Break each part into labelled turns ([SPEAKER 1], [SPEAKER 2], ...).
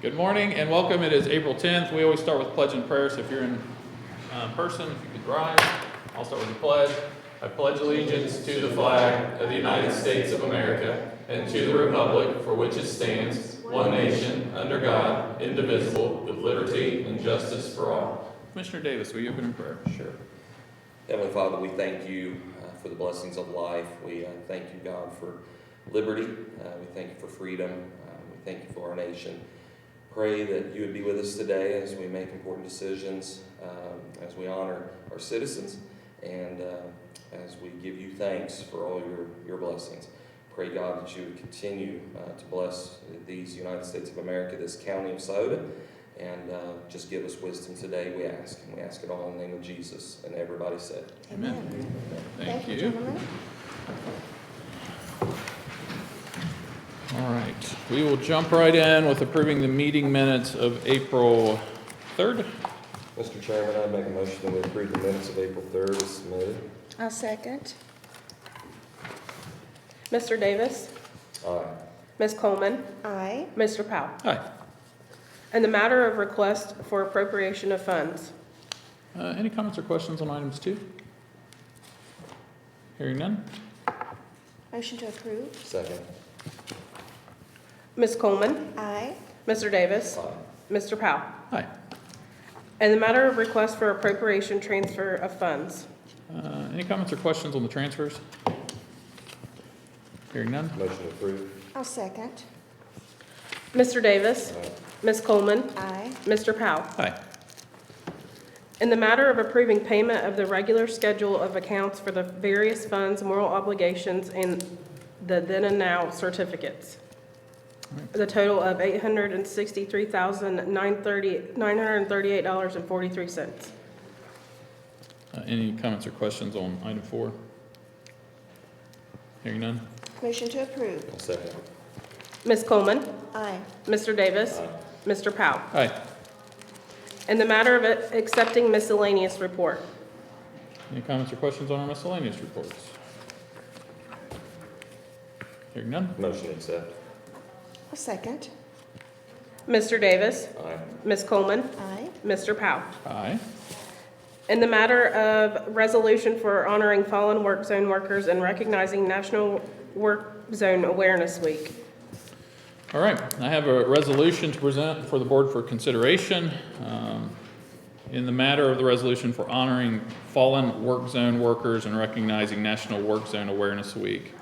[SPEAKER 1] Good morning and welcome. It is April 10th. We always start with pledge and prayer, so if you're in um, person, if you could rise, I'll start with the pledge. I pledge allegiance to the flag of the United States of America and to the republic for which it stands, one nation, under God, indivisible, with liberty and justice for all. Commissioner Davis, will you open in prayer?
[SPEAKER 2] Sure. Heavenly Father, we thank you uh, for the blessings of life. We uh, thank you, God, for liberty. Uh, we thank you for freedom. Uh, we thank you for our nation. Pray that you would be with us today as we make important decisions, um, as we honor our citizens, and uh, as we give you thanks for all your, your blessings. Pray, God, that you would continue uh, to bless these United States of America, this county of Soda, and uh, just give us wisdom today, we ask. And we ask it all in the name of Jesus. And everybody said,
[SPEAKER 1] Amen. Thank you.
[SPEAKER 3] gentlemen.
[SPEAKER 1] All right, we will jump right in with approving the meeting minutes of April 3rd.
[SPEAKER 2] Mr. Chairman, I make a motion that we approve the minutes of April 3rd as submitted.
[SPEAKER 3] I'll second.
[SPEAKER 4] Mr. Davis,
[SPEAKER 2] Aye.
[SPEAKER 4] Ms. Coleman,
[SPEAKER 3] Aye.
[SPEAKER 4] Mr. Powell.
[SPEAKER 1] Hi.
[SPEAKER 4] In the matter of request for appropriation of funds,
[SPEAKER 1] Uh, Any comments or questions on items two? Hearing none?
[SPEAKER 3] Motion to approve?
[SPEAKER 2] Second.
[SPEAKER 4] Ms. Coleman,
[SPEAKER 3] Aye.
[SPEAKER 4] Mr. Davis,
[SPEAKER 2] Aye.
[SPEAKER 4] Mr. Powell.
[SPEAKER 1] Aye.
[SPEAKER 4] In the matter of request for appropriation transfer of funds,
[SPEAKER 1] Uh, Any comments or questions on the transfers? Hearing none?
[SPEAKER 2] Motion approved.
[SPEAKER 3] I'll second.
[SPEAKER 4] Mr. Davis,
[SPEAKER 2] Aye.
[SPEAKER 4] Ms. Coleman,
[SPEAKER 3] Aye.
[SPEAKER 4] Mr. Powell.
[SPEAKER 1] Aye.
[SPEAKER 4] In the matter of approving payment of the regular schedule of accounts for the various funds, moral obligations, and the then and now certificates. The total of eight hundred and sixty-three thousand nine thirty, nine hundred and thirty-eight dollars and forty-three cents.
[SPEAKER 1] Uh, Any comments or questions on item four? Hearing none?
[SPEAKER 3] Motion to approve?
[SPEAKER 2] I'll Second.
[SPEAKER 4] Ms. Coleman,
[SPEAKER 3] Aye.
[SPEAKER 4] Mr. Davis,
[SPEAKER 2] Aye.
[SPEAKER 4] Mr. Powell.
[SPEAKER 1] Aye.
[SPEAKER 4] In the matter of it- accepting miscellaneous report,
[SPEAKER 1] Any comments or questions on our miscellaneous reports? Hearing none?
[SPEAKER 2] Motion accept.
[SPEAKER 3] I'll second.
[SPEAKER 4] Mr. Davis,
[SPEAKER 2] Aye.
[SPEAKER 4] Ms. Coleman,
[SPEAKER 3] Aye.
[SPEAKER 4] Mr. Powell.
[SPEAKER 1] Aye.
[SPEAKER 4] In the matter of resolution for honoring fallen work zone workers and recognizing National Work Zone Awareness Week.
[SPEAKER 1] All right, I have a resolution to present for the board for consideration. um, In the matter of the resolution for honoring fallen work zone workers and recognizing National Work Zone Awareness Week.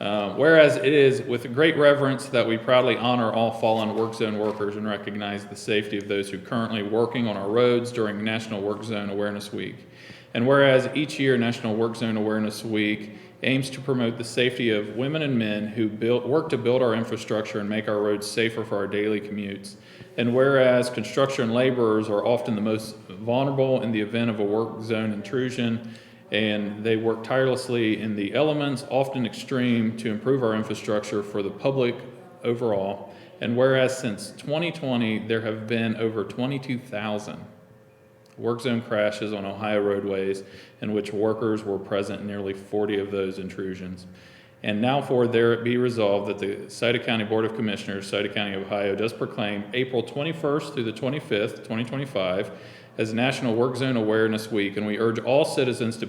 [SPEAKER 1] Uh, Whereas it is with great reverence that we proudly honor all fallen work zone workers and recognize the safety of those who currently working on our roads during National Work Zone Awareness Week. And whereas each year National Work Zone Awareness Week aims to promote the safety of women and men who build, work to build our infrastructure and make our roads safer for our daily commutes. And whereas construction laborers are often the most vulnerable in the event of a work zone intrusion, and they work tirelessly in the elements, often extreme, to improve our infrastructure for the public overall. And whereas since 2020, there have been over 22,000 work zone crashes on Ohio roadways in which workers were present in nearly 40 of those intrusions. And now for there it be resolved that the Sauter County Board of Commissioners, Sauter County, Ohio, does proclaim April 21st through the 25th, 2025, as National Work Zone Awareness Week, and we urge all citizens to